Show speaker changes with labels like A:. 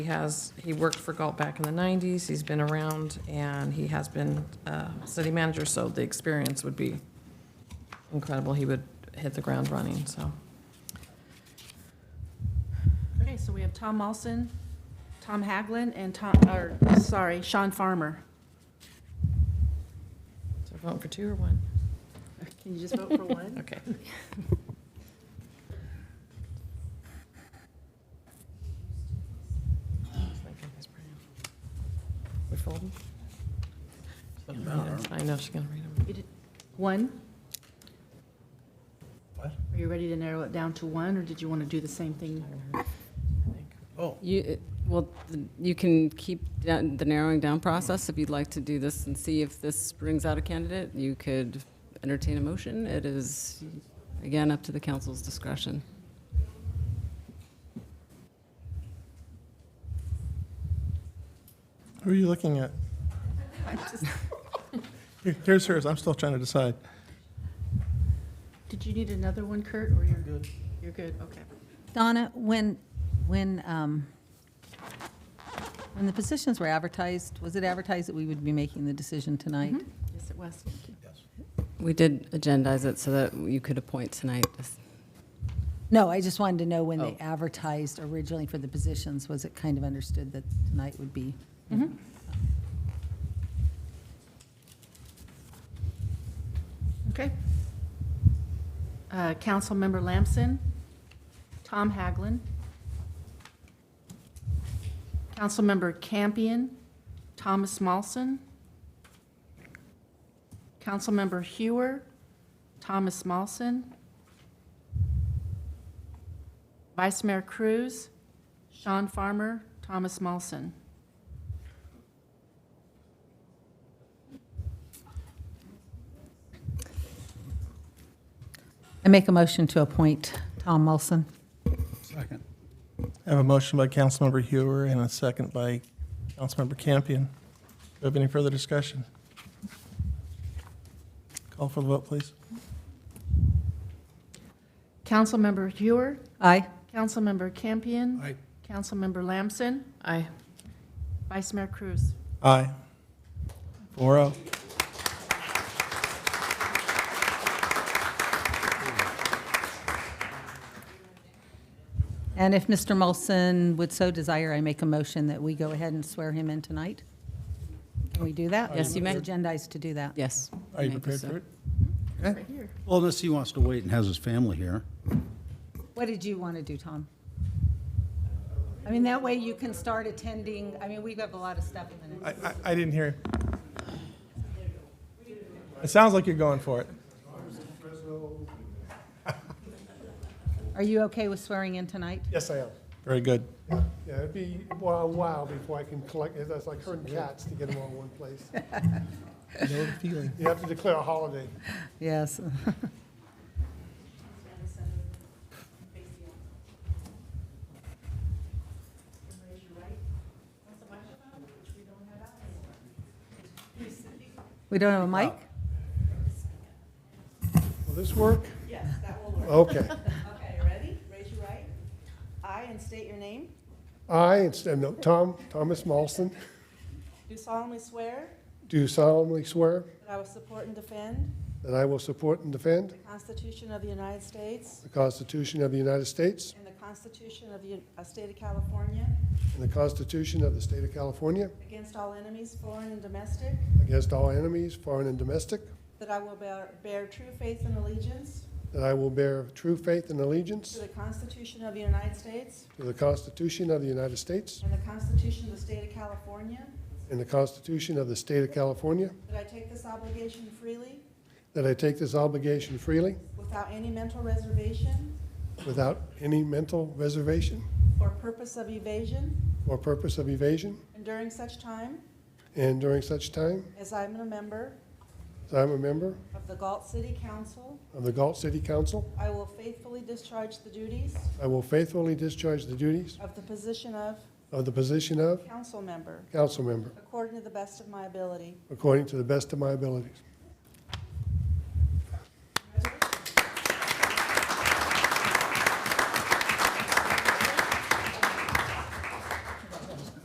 A: He has, he worked for Galt back in the 90s, he's been around, and he has been uh, city manager, so the experience would be incredible. He would hit the ground running, so.
B: Okay, so we have Tom Mawson, Tom Haglin, and Tom, or, sorry, Sean Farmer.
A: So voting for two or one?
B: Can you just vote for one?
A: Okay. We're folding? I know she's gonna read them.
B: You did- One?
C: What?
B: Are you ready to narrow it down to one, or did you want to do the same thing?
C: Oh,
D: You, uh, well, you can keep down- the narrowing down process if you'd like to do this and see if this brings out a candidate. You could entertain a motion. It is, again, up to the council's discretion.
C: who are you looking at? Here- Here's hers, I'm still trying to decide.
B: Did you need another one, Kurt, or you're? Good. You're good, okay.
E: Donna, when, when, um, when the positions were advertised, was it advertised that we would be making the decision tonight?
B: Yes, it was. Thank you.
D: We did agendize it so that you could appoint tonight.
E: No, I just wanted to know when they advertised originally for the positions, was it kind of understood that tonight would be?
B: Okay. Uh, Councilmember Lamson, Tom Haglin, Councilmember Campion, Thomas Mawson, Councilmember Hewer, Thomas Mawson, Vice Mayor Cruz, Sean Farmer, Thomas Mawson.
E: I make a motion to appoint Tom Mulson.
C: Second. I have a motion by Councilmember Hewer and a second by Councilmember Campion. Do we have any further discussion? Call for the vote, please.
B: Councilmember Hewer,
E: Aye.
B: Councilmember Campion.
C: Aye.
B: Councilmember Lamson,
A: Aye.
B: Vice Mayor Cruz.
C: Aye. Four oh.
E: And if Mr. Mulson would so desire, I make a motion that we go ahead and swear him in tonight? Can we do that?
D: Yes, you may.
E: Agendized to do that.
D: Yes.
C: Are you
D: Maybe
C: prepared
D: so.
C: for it?
B: Right here.
F: Well, unless he wants to wait and has his family here.
E: What did you want to do, Tom? I mean, that way you can start attending, I mean, we have a lot of stuff in the next.
C: I, I, I didn't hear. It sounds like you're going for it.
E: Are you okay with swearing in tonight?
G: Yes, I am.
C: Very good.
G: Yeah, it'd be a while- while before I can collect, it's like herding cats to get them all in one place.
C: No feeling.
G: You have to declare a holiday.
E: Yes. We don't have a mic?
G: Will this work?
H: Yes, that will work.
G: Okay.
H: Okay, ready? Raise your right. I, and state your name,
G: I, instead, no, Tom, Thomas Mawson,
H: do solemnly swear
G: do solemnly swear
H: that I will support and defend
G: that I will support and defend
H: the Constitution of the United States
G: the Constitution of the United States
H: and the Constitution of the Un- uh, State of California
G: and the Constitution of the State of California
H: against all enemies, foreign and domestic,
G: against all enemies, foreign and domestic,
H: that I will bear bear true faith and allegiance
G: that I will bear true faith and
H: to
G: allegiance
H: the Constitution of the United States
G: to the Constitution of the United States
H: and the Constitution of the State of California,
G: and the Constitution of the State of California,
H: that I take this obligation freely
G: that I take this obligation freely
H: without any mental reservation
G: Without any mental reservation
H: or purpose of evasion,
G: or purpose of evasion,
H: and during such time
G: and during such time
H: As I'm a member
G: as I am a member
H: of the Galt City Council,
G: of the Galt City Council,
H: I will faithfully discharge the duties
G: I will faithfully discharge the duties
H: of the position of
G: of the position of
H: council member
G: council member
H: according to the best of my ability.
G: according to the best of my abilities.